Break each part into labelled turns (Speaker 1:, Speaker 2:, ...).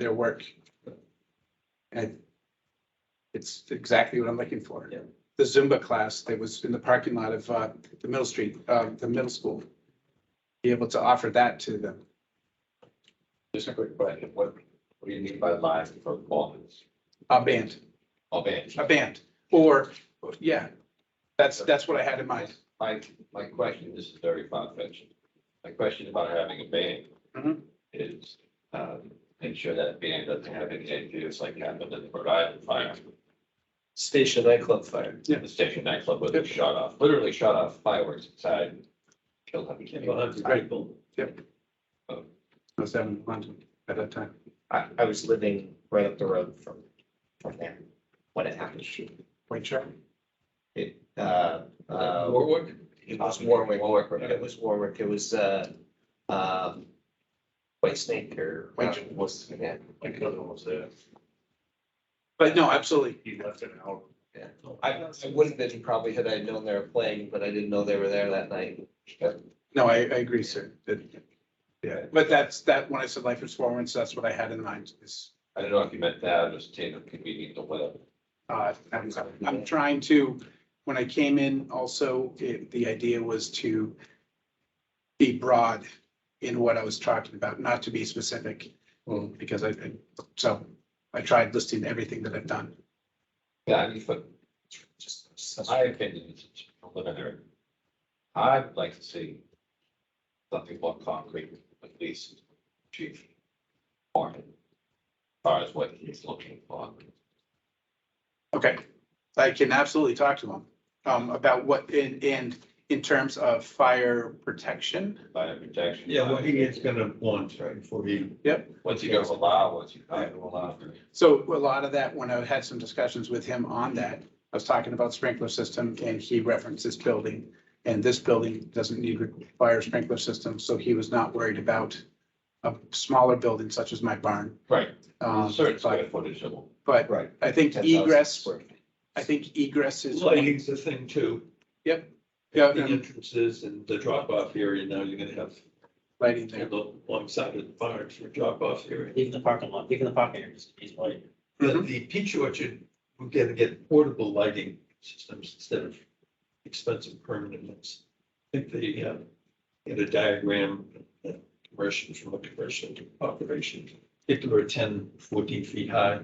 Speaker 1: their work. And it's exactly what I'm looking for.
Speaker 2: Yeah.
Speaker 1: The Zumba class that was in the parking lot of uh, the middle street, uh, the middle school. Be able to offer that to them.
Speaker 2: Just a quick question, what, what do you mean by live performance?
Speaker 1: A band,
Speaker 2: Oh, band.
Speaker 1: a band, or, yeah, that's, that's what I had in mind.
Speaker 2: My, my question, this is very far-fetched. My question about having a band
Speaker 1: Mhm.
Speaker 2: is, um, make sure that band doesn't have any ideas like happened in the Rhode Island fire.
Speaker 3: Station nightclub fire.
Speaker 1: Yeah.
Speaker 2: The station nightclub where they
Speaker 1: Yep.
Speaker 2: shot off, literally shot off fireworks inside. Killed hundreds of
Speaker 3: About
Speaker 2: people.
Speaker 3: 100 people.
Speaker 1: I was down in London at that time.
Speaker 4: I, I was living right up the road from, from there when it happened.
Speaker 1: Wait, sure.
Speaker 4: It, uh, uh,
Speaker 2: Warwick?
Speaker 4: it was Warwick,
Speaker 2: Warwick, right?
Speaker 4: it was Warwick, it was, uh, um, White Snake or.
Speaker 1: White-
Speaker 4: Was, yeah.
Speaker 3: My cousin was there.
Speaker 1: But no, absolutely.
Speaker 3: He left an hour.
Speaker 4: Yeah. I, I wouldn't have been probably had I known they were playing, but I didn't know they were there that night.
Speaker 1: No, I, I agree, sir. That- yeah, but that's, that, when I said life performance, that's what I had in mind is,
Speaker 2: I don't know if you meant that, just take a convenient or whatever.
Speaker 1: uh, I'm, I'm trying to, when I came in also, it, the idea was to be broad in what I was talking about, not to be specific, because I, I- so I tried listing everything that I've done.
Speaker 2: Yeah, I mean, for
Speaker 4: Just- just-
Speaker 2: my opinion, it's it's preliminary. I'd like to see something more concrete, at least chief. Or as far as what he's looking for.
Speaker 1: Okay, I can absolutely talk to them, um, about what, and, and in terms of fire protection,
Speaker 2: Fire protection.
Speaker 3: Yeah, what he is gonna want, right, before he.
Speaker 2: What's he gonna allow, what's he not gonna allow.
Speaker 1: So a lot of that, when I had some discussions with him on that, I was talking about sprinkler system and he referenced this building. And this building doesn't need a fire sprinkler system, so he was not worried about a smaller building such as my barn.
Speaker 2: Right,
Speaker 1: Um,
Speaker 2: certain
Speaker 1: but-
Speaker 2: square footage of.
Speaker 1: But
Speaker 4: Right.
Speaker 1: I think
Speaker 4: 10,000
Speaker 1: egress,
Speaker 4: square feet.
Speaker 1: I think egress is,
Speaker 3: Lighting's the thing too.
Speaker 1: yeah,
Speaker 3: The
Speaker 1: and
Speaker 3: entrances and the drop off area, now you're gonna have
Speaker 1: lighting there.
Speaker 3: alongside of the barns for drop off area.
Speaker 5: Even the parking lot, even the parking area is, is like,
Speaker 3: The,
Speaker 1: Mhm.
Speaker 3: the peach orchard, we're gonna get portable lighting systems instead of expensive permanent ones. I think they, uh, get a diagram, uh, conversion from a commercial to operation, particular ten, fourteen feet high.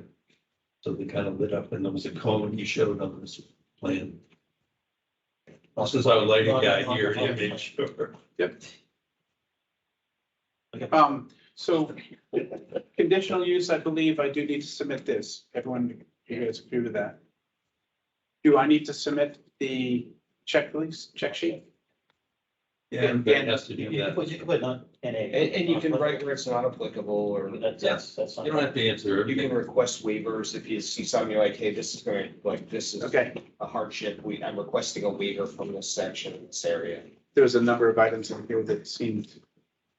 Speaker 3: So they kind of lit up and there was a cone he showed on this plan. This is our lighting guy here, he made sure.
Speaker 1: Um, so conditional use, I believe I do need to submit this. Everyone, you guys agree with that? Do I need to submit the checklist, check sheet?
Speaker 3: Yeah, everybody has to do
Speaker 5: you can
Speaker 3: that.
Speaker 5: put, you can put not NA.
Speaker 4: And, and you can write where it's not applicable or
Speaker 5: That's, that's, that's.
Speaker 3: You don't have to answer
Speaker 4: you can
Speaker 3: everything.
Speaker 4: request waivers if you see something you're like, hey, this is going, like, this is
Speaker 1: Okay,
Speaker 4: a hardship. We, I'm requesting a waiver from this section, in this area.
Speaker 1: there was a number of items in here that seemed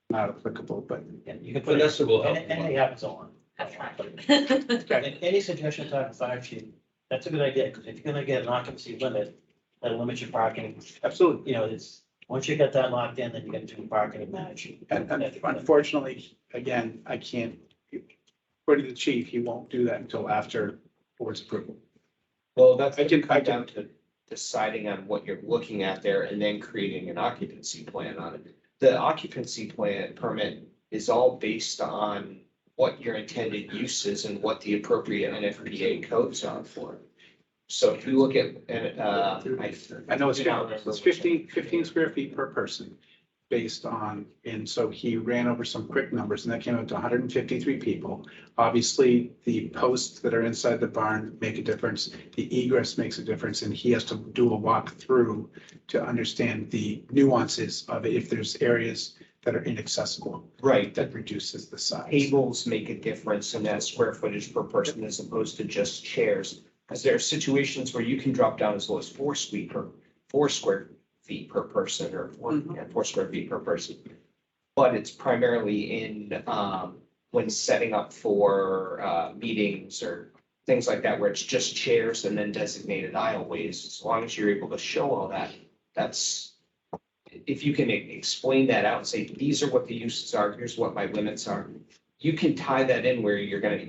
Speaker 1: not applicable, but
Speaker 5: And you can put,
Speaker 3: Vanessa will help.
Speaker 5: and, and it happens a lot.
Speaker 6: That's fine.
Speaker 1: okay,
Speaker 5: And Any suggestion type of fire chief, that's a good idea, because if you're gonna get an occupancy limit, that limits your parking,
Speaker 1: absolutely.
Speaker 5: you know, it's, once you get that locked in, then you get to do parking and manage.
Speaker 1: And and unfortunately, again, I can't, according to the chief, he won't do that until after board's approval.
Speaker 4: Well, that's
Speaker 1: I
Speaker 4: gonna
Speaker 1: can- I
Speaker 4: come
Speaker 1: can-
Speaker 4: down to deciding on what you're looking at there and then creating an occupancy plan on it. The occupancy plan permit is all based on what your intended use is and what the appropriate NFPA codes are for. So if you look at, and, uh, I.
Speaker 1: I know it's
Speaker 4: do not
Speaker 1: down,
Speaker 4: remember
Speaker 1: it's
Speaker 4: which-
Speaker 1: 15 15 square feet per person based on, and so he ran over some quick numbers and that came out to hundred and fifty-three people. Obviously, the posts that are inside the barn make a difference, the egress makes a difference, and he has to do a walkthrough to understand the nuances of it, if there's areas that are inaccessible,
Speaker 4: Right, the
Speaker 1: that reduces the size.
Speaker 4: tables make a difference in that square footage per person as opposed to just chairs. Because there are situations where you can drop down as low as four square per, four square feet per person or four,
Speaker 1: Mhm.
Speaker 4: yeah, four square feet per person. But it's primarily in, um, when setting up for, uh, meetings or things like that, where it's just chairs and then designated aisleways. As long as you're able to show all that, that's, if you can e- explain that out and say, these are what the uses are, here's what my limits are you can tie that in where you're gonna,